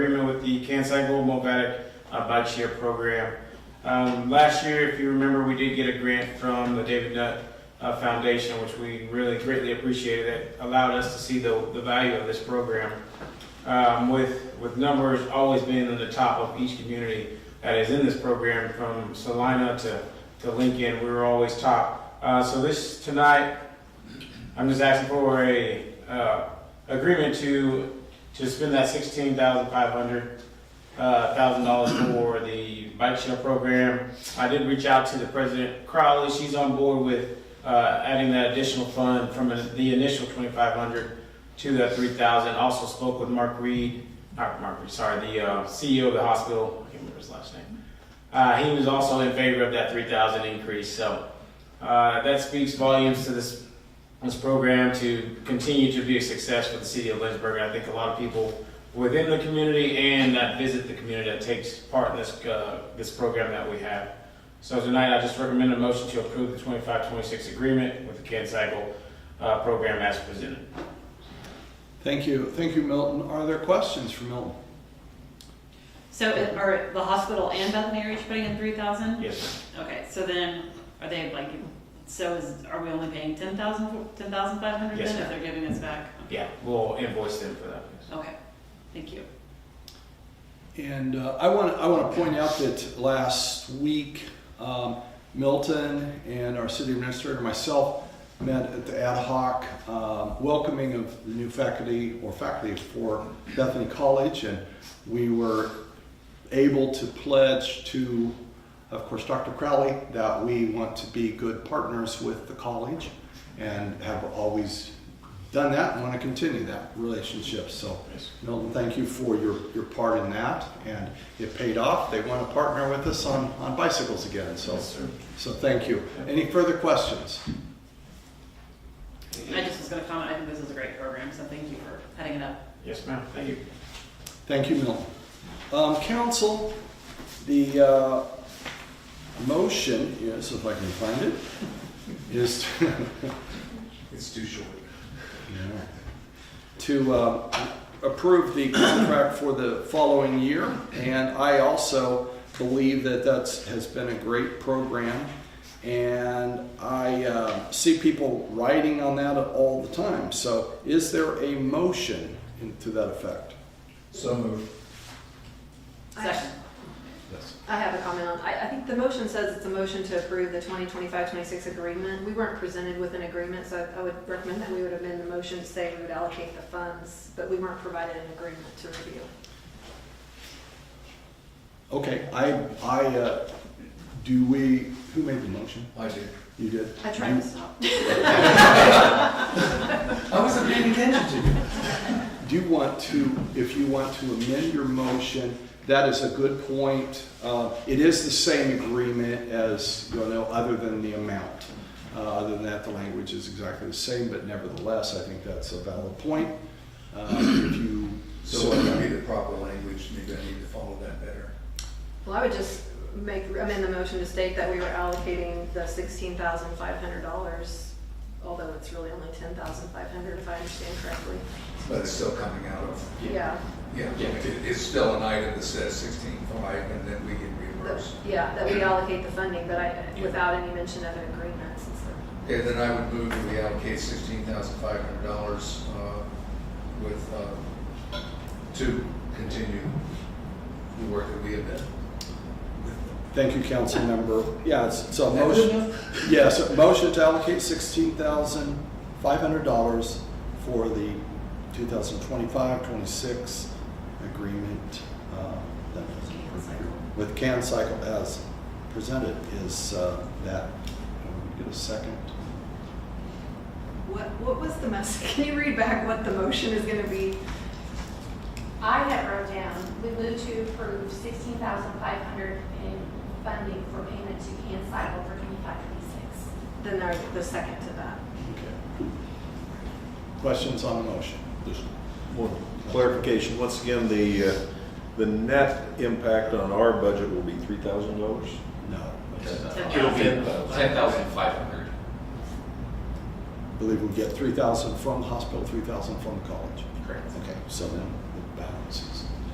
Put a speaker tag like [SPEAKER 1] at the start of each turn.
[SPEAKER 1] the Kansai Gold Movatic uh, Bike Share Program. Um, Last year, if you remember, we did get a grant from the David Nutt uh, Foundation, which we really greatly appreciated. That allowed us to see the, the value of this program. Um, With, with numbers always being in the top of each community that is in this program, from Salina to, to Lincoln, we were always top. Uh, So this, tonight, I'm just asking for a, uh, agreement to, to spend that sixteen thousand five hundred, uh, thousand dollars for the bike share program. I did reach out to the president Crowley, she's on board with, uh, adding that additional fund from the initial twenty-five hundred to that three thousand. Also spoke with Mark Reed, not Mark Reed, sorry, the, uh, CEO of the hospital, I can't remember his last name. Uh, he was also in favor of that three thousand increase, so, uh, that speaks volumes to this this program to continue to be a success for the city of Lynchburg. I think a lot of people within the community and that visit the community that takes part in this, uh, this program that we have. So tonight, I just recommend a motion to approve the 25-26 agreement with the Canseco, uh, program as presented.
[SPEAKER 2] Thank you, thank you, Milton. Are there questions for Milton?
[SPEAKER 3] So it- are the hospital and Bethany are each putting in three thousand?
[SPEAKER 1] Yes, ma'am.
[SPEAKER 3] Okay, so then are they like, so is, are we only paying ten thousand, ten thousand five hundred
[SPEAKER 1] Yes,
[SPEAKER 3] then if
[SPEAKER 1] ma'am.
[SPEAKER 3] they're giving us back?
[SPEAKER 1] yeah, we'll invoice them for that. yes.
[SPEAKER 3] Okay, thank you.
[SPEAKER 2] And uh, I want to I want to point out that last week, um, Milton and our city administrator and myself met at the ad hoc um, welcoming of the new faculty or faculty for Bethany College, and we were able to pledge to, of course, Dr. Crowley that we want to be good partners with the college, and have always done that and want to continue that relationship. So.
[SPEAKER 1] Yes.
[SPEAKER 2] Milton, thank you for your, your part in that, and it paid off. They want to partner with us on, on bicycles again, so,
[SPEAKER 1] Yes, sir.
[SPEAKER 2] so thank you. Any further questions?
[SPEAKER 3] I just was gonna comment, I think this is a great program, so thank you for heading it up.
[SPEAKER 1] Yes, ma'am, thank you.
[SPEAKER 2] Thank you, Milton. Um, council, the, uh, motion, yes, if I can find it, is
[SPEAKER 1] It's too short.
[SPEAKER 2] to uh, approve the contract for the following year. And I also believe that that's, has been a great program. And I uh, see people writing on that all the time. So is there a motion in- to that effect?
[SPEAKER 4] So moved.
[SPEAKER 5] I have-
[SPEAKER 3] Second,
[SPEAKER 2] Yes.
[SPEAKER 5] I have a comment on, I, I think the motion says it's a motion to approve the 2025-26 agreement. We weren't presented with an agreement, so I would recommend that we would amend the motion to say we would allocate the funds, but we weren't provided an agreement to review.
[SPEAKER 2] Okay, I, I, uh, do we, who made the motion?
[SPEAKER 4] I did.
[SPEAKER 2] You did?
[SPEAKER 5] I tried to stop.
[SPEAKER 4] I wasn't paying attention to you.
[SPEAKER 2] Do you want to, if you want to amend your motion, that is a good point. Uh, It is the same agreement as, you know, other than the amount. Uh, Other than that, the language is exactly the same, but nevertheless, I think that's a valid point. Uh, If you,
[SPEAKER 4] So what would be the proper language? Maybe I need to follow that better.
[SPEAKER 5] Well, I would just make, amend the motion to state that we were allocating the $16,500, although it's really only $10,500 if I understand correctly.
[SPEAKER 4] But it's still coming out of,
[SPEAKER 5] Yeah,
[SPEAKER 4] yeah, it- it's still an item that says sixteen-five, and then we get
[SPEAKER 5] that-
[SPEAKER 4] reimbursed.
[SPEAKER 5] yeah, that we allocate the funding, but I, without any mention of an agreement since the
[SPEAKER 4] Okay, then I would move that we allocate sixteen thousand five hundred dollars uh, with, uh, to continue the work that we have done.
[SPEAKER 2] thank you, council member. Yeah, it's it's a motion. Yes, a motion to allocate sixteen thousand five hundred dollars for the 2025-26 agreement. uh, that was With Can Cycle as presented is uh, that, can we get a second?
[SPEAKER 5] What, what was the message? Can you read back what the motion is gonna be?
[SPEAKER 6] I had wrote down, we move to approve sixteen thousand five hundred in funding for payment to Can Cycle for twenty-five, twenty-six.
[SPEAKER 5] Then there's the second to that.
[SPEAKER 2] Okay. Questions on the motion?
[SPEAKER 7] Just one clarification, once again, the, uh, the net impact on our budget will be three thousand dollars?
[SPEAKER 2] No.
[SPEAKER 3] Ten
[SPEAKER 8] It'll be
[SPEAKER 3] thousand.
[SPEAKER 8] ten thousand five hundred.
[SPEAKER 2] I believe we get three thousand from the hospital, three thousand from the college.
[SPEAKER 8] Correct.
[SPEAKER 2] Okay, so then the balance is